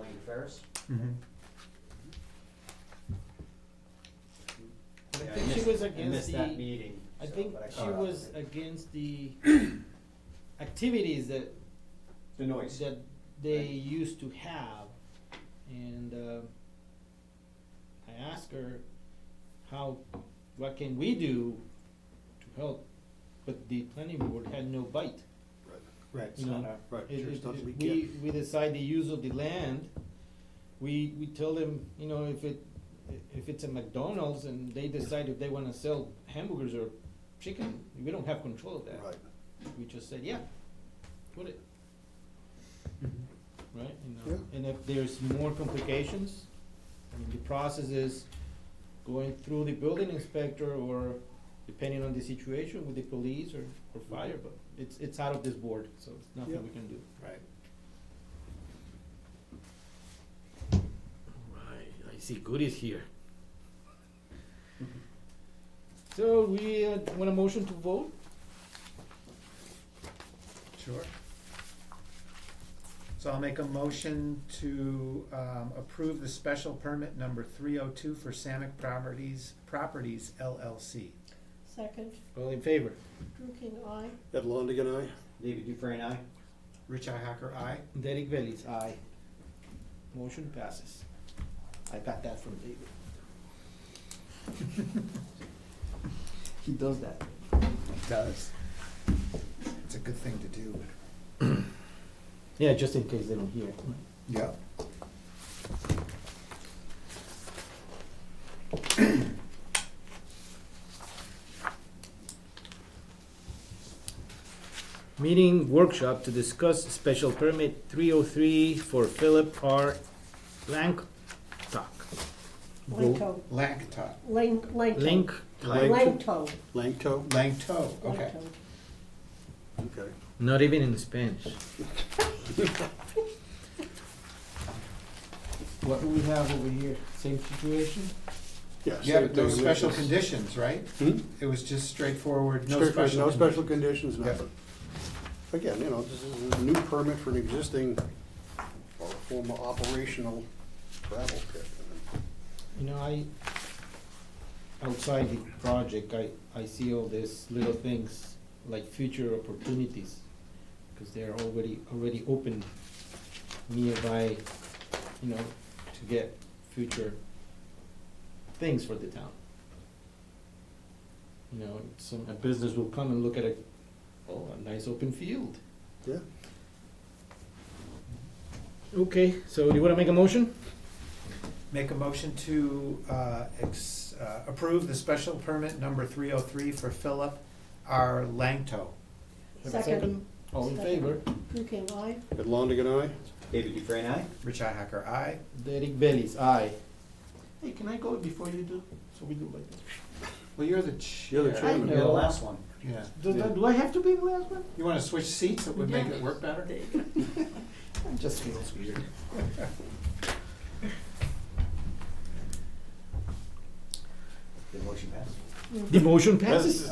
repairs. Mhm. I Yeah, think she missed- was I against missed that the, meeting. I so- think but I she caught up was with it. against the activities that, The noise. that they Right. used to have. And, uh, I asked her how, what can we do to help? But the planning board had no bite. Right, You know, right, It- sure it- stuff it- we we, get. we decide the use of the land, we, we tell them, you know, if it, if it's a McDonald's and they decide if they wanna sell hamburgers or chicken, we don't have control of that. Right. We just said, yeah, put it, Mhm. right, you know, Yeah. and if there's more complications, I mean, the process is going through the building inspector or depending on the situation with the police or, or fire, but it's, it's out of this board, so it's Mm-hmm. Yeah. nothing we can do. Right. Right, I see goodies here. Mm-hmm. So we uh, want a motion to vote? Sure. So I'll make a motion to um, approve the special permit number three oh two for Samick Properties, Properties LLC. Second, All in favor? Drew King, aye. Ed Longigan, aye. David Dufresne, aye? Rich Hacker, aye. Derek Bellis, aye. Motion passes. I got that from David. He does that. Does. It's a good thing to do. Yeah, just in case they don't hear. Yeah. Meeting workshop to discuss special permit three oh three for Philip R. Langtock. Langto, Langto, Lang, Langto. Link, Langto. Langto? Langto, okay. Langto. Okay. not even in Spanish. What do we have over here? Same situation? Yeah, same but those thing. special It's- conditions, right? Hmm? It was just straightforward, no Strict- special. No conditions. special conditions, Yeah. nothing. Again, you know, this is a new permit for an existing or a former operational gravel pit. You know, I, outside the project, I, I see all these little things like future opportunities, because they're already, already open nearby, you know, to get future things for the town. You know, some, a business will come and look at a, oh, a nice open field. Yeah. Okay, so do you wanna make a motion? Make a motion to uh, ex- uh, approve the special permit number 303 for Philip R. Langto. Have a Second. All in Second. favor? Drew King, aye. Ed Longigan, aye. David Dufresne, aye? Rich Hacker, aye. Derek Bellis, aye. Hey, can I go before you do? So we do like that. Well, you're the chair. You're the You're chairman. the know. last one. Yeah. Do, do- do I have to be the last one? You want to switch seats? It would make it work better? It just feels weird. The motion passed. The motion passes.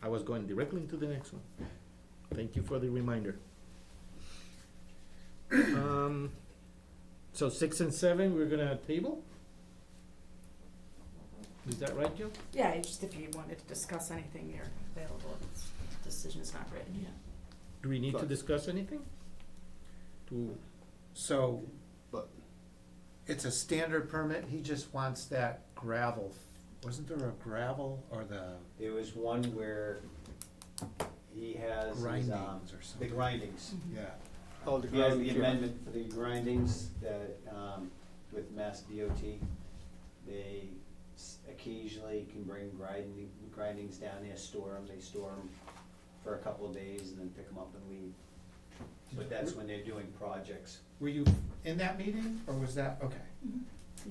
I was going directly into the next one. Thank you for the reminder. Um, so six and seven, we're gonna table? Is that right, Joe? Yeah, it's just if you wanted to discuss anything, you're available. It's- The decision is not written yet. Do we need to Right. discuss anything? To, So, But- it's a standard permit, he just wants that gravel. Wasn't there a gravel or the There was one where he has his, um, grindings or the something? grindings. Yeah. Oh, the He has the ground- amendment for the grindings that, um, with Mass DOT, they s- occasionally can bring grinding, grindings down there, store them, they store them for a couple of days and then pick them up and leave. But that's when they're doing projects. Were you in that meeting or was that, okay.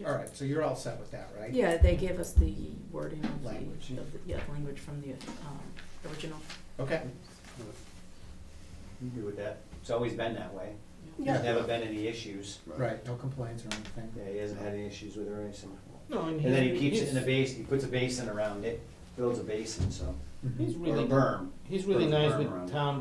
All right, so you're all set with that, right? Yeah, they gave us the wording of the, Language, yeah. of the, yeah, language from the, um, original. Okay. You good with that? It's always been that way. Yeah. There's never been any issues. Right, no complaints or anything? Yeah, he hasn't had any issues with it or anything. no, and And then he he's- keeps it he's- in a basin, he puts a basin around it, builds a basin, so, Mhm. He's or a really, berm. he's really berm nice around with it. town